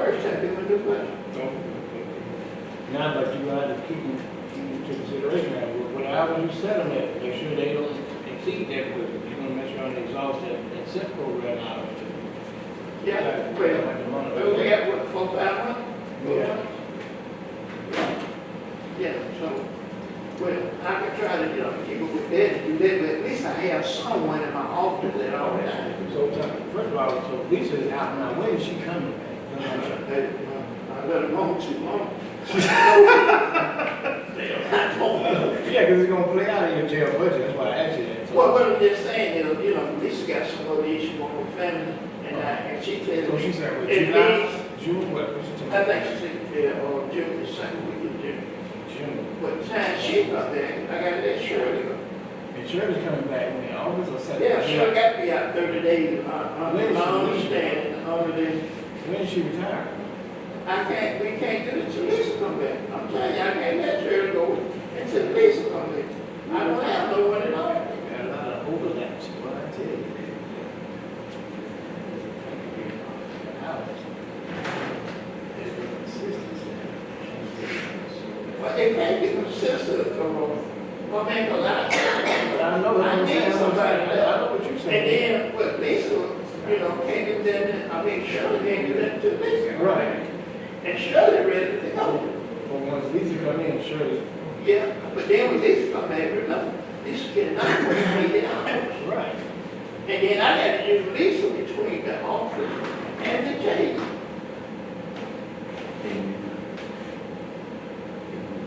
exactly what it was. Now, but you gotta keep in, keep into consideration that, what- what I already said on that, make sure they don't exceed that, but you're gonna mess around and exhaust that, that SIP program out of it. Yeah, well, Like the well, we money. got what, four, five months? Four Yeah. months? Yeah, so, well, I could try to, you know, keep up with that, do that, but at least I have someone in my office that already, I, Oh, So, uh, first of all, so Lisa is out now, when is she coming back? I let it go too long. Damn, I don't know. Yeah, cause it's gonna play out in your jail budget, that's why I asked you that. So- Well, what I'm just saying is, you know, Lisa got some of these, she want her family, and I, and she said, So she said, what, It July, June, what, what's the I time? think she said, yeah, or June, the second week of June. June. But time she got there, I got that Shirley. And Shirley's coming back when, August or September? Yeah, Shirley got to be out thirty days, uh, uh, Listen, my listen. understanding, only then, When is she retiring? I can't, we can't do it till Lisa come back. I'm telling you, I can't let Shirley go until Lisa come back. I don't have no one at all. Got a lot of overlaps, what I tell you. Well, it can't be consistent, so, well, make a lot of But I know, what I'm saying, somebody, I I know what you're And saying. then, but Lisa, you know, can't do that, I mean, Shirley can't do that to Lisa. Right, And Shirley ready to go. but once Lisa come in, Shirley, Yeah, but then when Lisa come back, remember, Lisa cannot work in the office. right. And then I got to use Lisa between the office and the jail.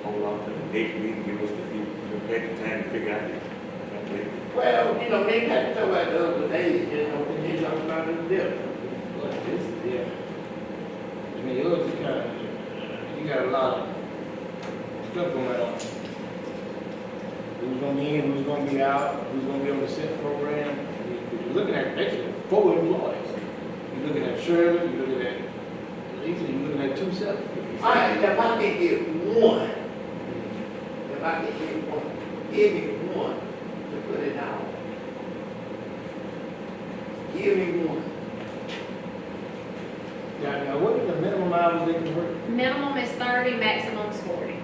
Hold on to the date, we can give us the, the better time to figure out. it. Well, you know, me and Pat talked about the other day, you know, when they talk about it different. But this, yeah. I mean, yours is kind of, you got a lot of stuff going on. Who's gonna be in, who's gonna be out, who's gonna be on the SIP program. I mean, You're looking at basically four employees. You're looking at Shirley, you're looking at Lisa, you're looking at two SIP. All right, if I can get one, if I can get one, give me one to put it out. Give me one. Now, now, what is the minimum hours they can work? Minimum is thirty, maximum is forty.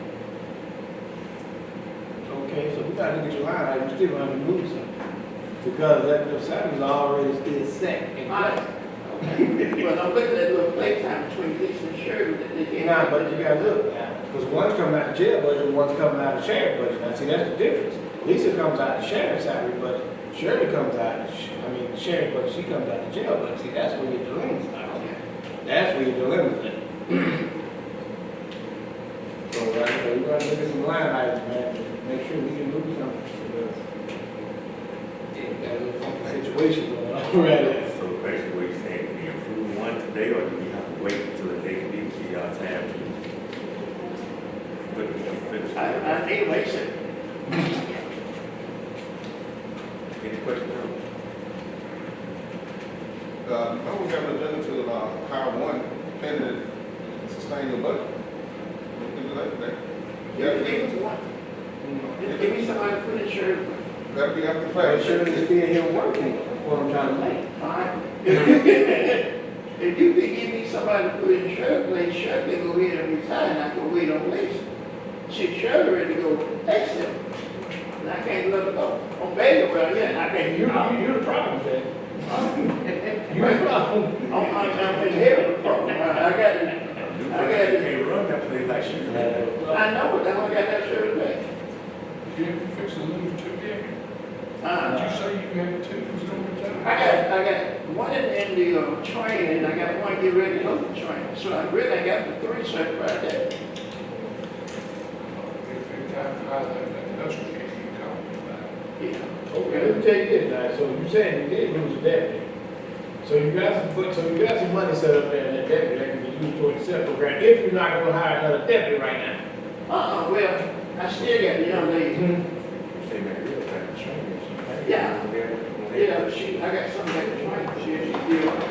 Okay, so we gotta look at your line, item. you still gonna have to move something. Because that, the salary's already still set. Alright. Well, I'm looking at little playtime between this and Shirley that they can. Now, but you gotta look now, because one's coming out of jail budget, and one's coming out of sheriff budget. Now, see, that's the difference. Lisa comes out of sheriff's salary budget, Shirley comes out, of sh- I mean, sheriff budget, she comes out of jail budget. See, that's where your dilemma's at. That's where your dilemma's at. So, uh, like, I said, we gotta look at some line items, man, to make sure we can move something, because it got a little funky situation going on right now. So basically, what you're saying, can we approve one today, or do we have to wait until the date, we give y'all time to? But, but, I, I need a reason. any questions? Uh, I was having an agenda to, uh, hire one candidate to sustain your budget. We can do that today. Give me one. Just Give me somebody to put in Shirley. That'd be after But five. Shirley's still here working, what I'm trying to make. Alright. If you could give me somebody to put in Shirley, let Shirley go ahead and resign, I can wait on Lisa. She Shirley ready to go, exit. And I can't let her go. On bail, well, yeah, I can't. you're the problem, Jay. You're the problem. I'm, I'm, I'm in here, the problem. I I got it. You I got it. can't run that place like she can. I know it, I don't got that Shirley back. You have to fix the little two, yeah. Uh, Did you say you had two, who's gonna I retire? got, I got one in, in the uh, train, and I got one get ready to go to the train, so I really, I got the three set right there. If you have to hire that, that- that's what you're talking about. Yeah. Okay, let me tell you this, now, so you saying you did lose a deputy. So you got some, but, so you got some money set up there in that deputy that can be used toward the SEP program, if you're not gonna hire another deputy right now. Uh-uh, well, I still got the young lady, You say that real time, she ain't- she ain't- Yeah. Yeah. yeah, she, I got something at the train, she, she, yeah.